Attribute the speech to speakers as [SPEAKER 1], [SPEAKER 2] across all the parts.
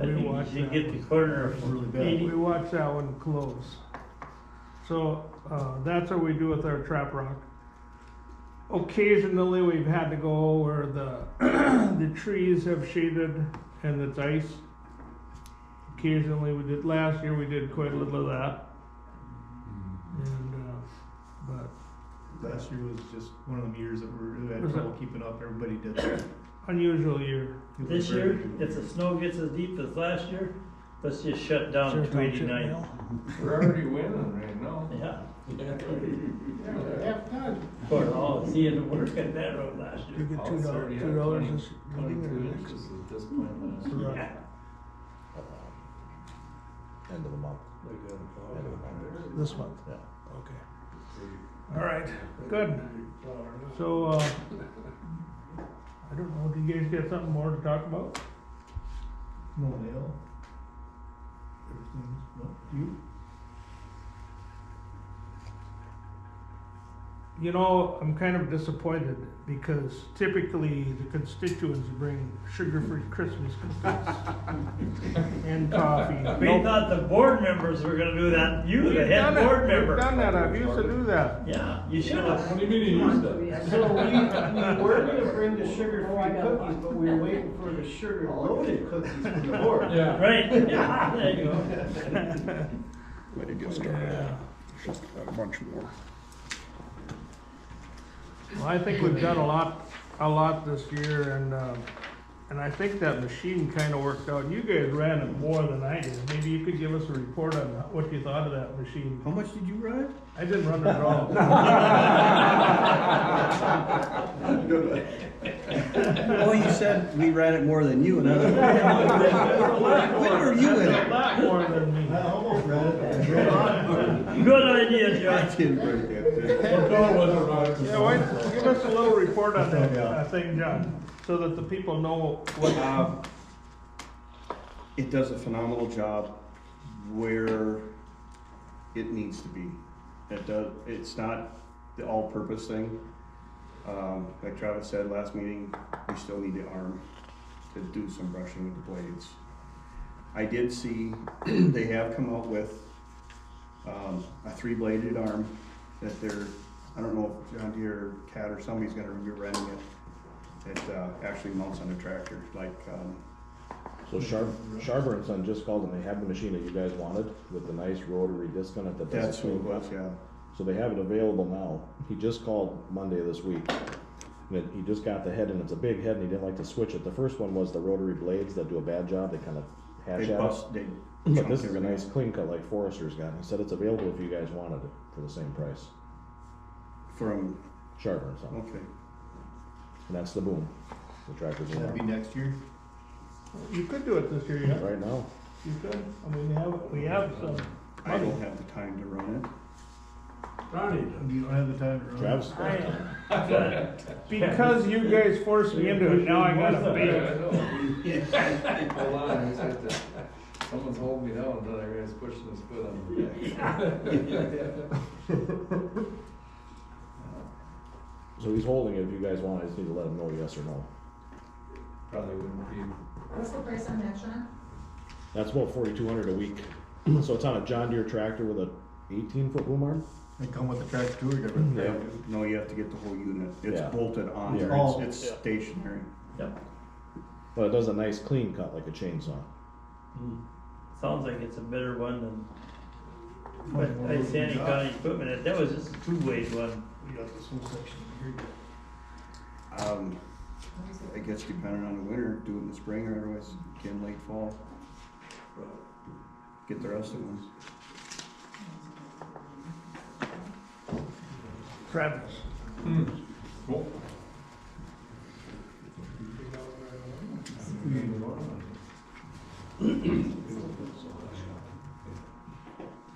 [SPEAKER 1] once you get the corner
[SPEAKER 2] It's really
[SPEAKER 1] of
[SPEAKER 2] bad.
[SPEAKER 1] eighty,
[SPEAKER 3] We watch that one close. So, uh, that's what we do with our trap rock. Occasionally, we've had to go where the, the trees have shaded and it's ice. Occasionally, we did, last year, we did quite a little of that, and, uh, but
[SPEAKER 2] Last year was just one of them years that we really had
[SPEAKER 3] Was
[SPEAKER 2] trouble keeping up, everybody did that.
[SPEAKER 3] unusual year.
[SPEAKER 2] It was
[SPEAKER 1] this
[SPEAKER 2] very
[SPEAKER 1] year,
[SPEAKER 2] difficult.
[SPEAKER 1] if the snow gets as deep as last year, let's just shut down two eighty-nine.
[SPEAKER 4] We're already winning right now.
[SPEAKER 1] Yeah,
[SPEAKER 5] Half ton.
[SPEAKER 1] for all the seeing work at that road last year.
[SPEAKER 4] You get two dollars, two dollars is. Twenty-two inches at this point last year.
[SPEAKER 1] Yeah.
[SPEAKER 6] End of the month,
[SPEAKER 1] uh,
[SPEAKER 6] end of the month. This month? Yeah.
[SPEAKER 3] All right, good. So, uh, I don't know, do you guys got something more to talk about?
[SPEAKER 2] No nail. Everything's, no, you?
[SPEAKER 3] You know, I'm kind of disappointed because typically the constituents bring sugar-free Christmas cookies and coffee.
[SPEAKER 1] We
[SPEAKER 3] Nope.
[SPEAKER 1] thought the board members were gonna do that, you, the
[SPEAKER 3] We've
[SPEAKER 1] head
[SPEAKER 3] done it.
[SPEAKER 1] board
[SPEAKER 3] We've
[SPEAKER 1] member.
[SPEAKER 3] done that, I've used to do that.
[SPEAKER 1] Yeah, you should have.
[SPEAKER 4] What do you mean you used that?
[SPEAKER 5] So we, we were gonna bring the
[SPEAKER 1] Oh,
[SPEAKER 5] sugar-free cookies, but we were waiting for the sugar-loaded cookies from the board.
[SPEAKER 4] Yeah.
[SPEAKER 1] Right, yeah, there you go.
[SPEAKER 7] Way to get started. Just a bunch more.
[SPEAKER 3] Well, I think we've done a lot, a lot this year and, um, and I think that machine kind of worked out. You guys ran it more than I did. Maybe you could give us a report on that- what you thought of that machine.
[SPEAKER 2] How much did you ride?
[SPEAKER 3] I didn't run it at all.
[SPEAKER 7] Oh, you said we ran it more than you and I. When were you in it?
[SPEAKER 3] More than me.
[SPEAKER 2] I almost ran it.
[SPEAKER 1] Good idea, John.
[SPEAKER 7] Didn't break that thing.
[SPEAKER 4] No, it wasn't rocket
[SPEAKER 3] Yeah, why, give us a little report on that
[SPEAKER 2] Yeah.
[SPEAKER 3] uh, thing, John, so that the people know what,
[SPEAKER 7] Uh, It does a phenomenal job where it needs to be. It does, it's not the all-purpose thing. Um, like Travis said last meeting, we still need the arm to do some brushing with the blades. I did see, they have come out with, um, a three-bladed arm that they're, I don't know if John Deere, or Cat or somebody's gonna be renting it. It, uh, actually mounts on a tractor, like, um,
[SPEAKER 6] So Shar- Sharber and Son just called and they have the machine that you guys wanted with the nice rotary disc on it that does
[SPEAKER 7] That's what it
[SPEAKER 6] swing up.
[SPEAKER 7] was, yeah.
[SPEAKER 6] So they have it available now. He just called Monday this week. And it- he just got the head and it's a big head and he didn't like to switch it. The first one was the rotary blades that do a bad job. They kind of
[SPEAKER 7] They
[SPEAKER 6] hatch out.
[SPEAKER 7] bust, they.
[SPEAKER 6] But
[SPEAKER 7] chunk
[SPEAKER 6] this is a
[SPEAKER 7] everything.
[SPEAKER 6] nice clean cut like Forrester's got. He said it's available if you guys wanted it for the same price.
[SPEAKER 7] From,
[SPEAKER 6] Sharper and Son.
[SPEAKER 7] okay,
[SPEAKER 6] And that's the boom. The tractor's in
[SPEAKER 2] That'd be
[SPEAKER 6] there.
[SPEAKER 2] next year.
[SPEAKER 3] you could do it this year, yeah,
[SPEAKER 6] Right now.
[SPEAKER 3] you could, I mean, we have, we have some.
[SPEAKER 7] I don't have the time to run it.
[SPEAKER 2] You don't have the time to run.
[SPEAKER 6] Travis.
[SPEAKER 3] Because you guys forced me into it, now I gotta
[SPEAKER 4] I
[SPEAKER 3] pay.
[SPEAKER 4] know. Hold on, I just have to, someone's holding me down, then I realize pushing his foot on the back.
[SPEAKER 6] So he's holding it if you guys want. I just need to let him know yes or no.
[SPEAKER 4] Probably wouldn't be,
[SPEAKER 8] What's the price on that, Sean?
[SPEAKER 6] That's about forty-two hundred a week. So it's on a John Deere tractor with a eighteen-foot boom arm?
[SPEAKER 2] They come with the tractor too, or different.
[SPEAKER 6] Yeah.
[SPEAKER 7] No, you have to get the whole unit. It's
[SPEAKER 6] Yeah.
[SPEAKER 7] bolted on,
[SPEAKER 6] Yeah.
[SPEAKER 2] Oh.
[SPEAKER 7] it's, it's stationary.
[SPEAKER 1] Yep,
[SPEAKER 6] But it does a nice clean cut like a chainsaw.
[SPEAKER 1] sounds like it's a better one than But I Sandy County equipment, that was just a two-way one.
[SPEAKER 2] We got this whole section here.
[SPEAKER 7] Um, I guess depending on the winter, do it in the spring or otherwise again late fall. Get the rest of them.
[SPEAKER 3] Travis,
[SPEAKER 4] cool.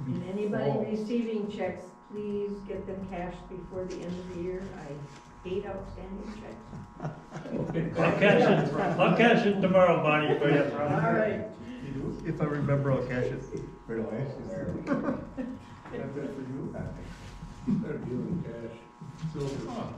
[SPEAKER 9] And anybody receiving checks, please get them cashed before the end of the year. I hate outstanding checks.
[SPEAKER 1] I'll catch it, I'll catch it tomorrow, Bonnie, for you.
[SPEAKER 9] All right.
[SPEAKER 2] If I remember, I'll cash it. Right away.
[SPEAKER 4] Got that for you? Better give him cash. Silver.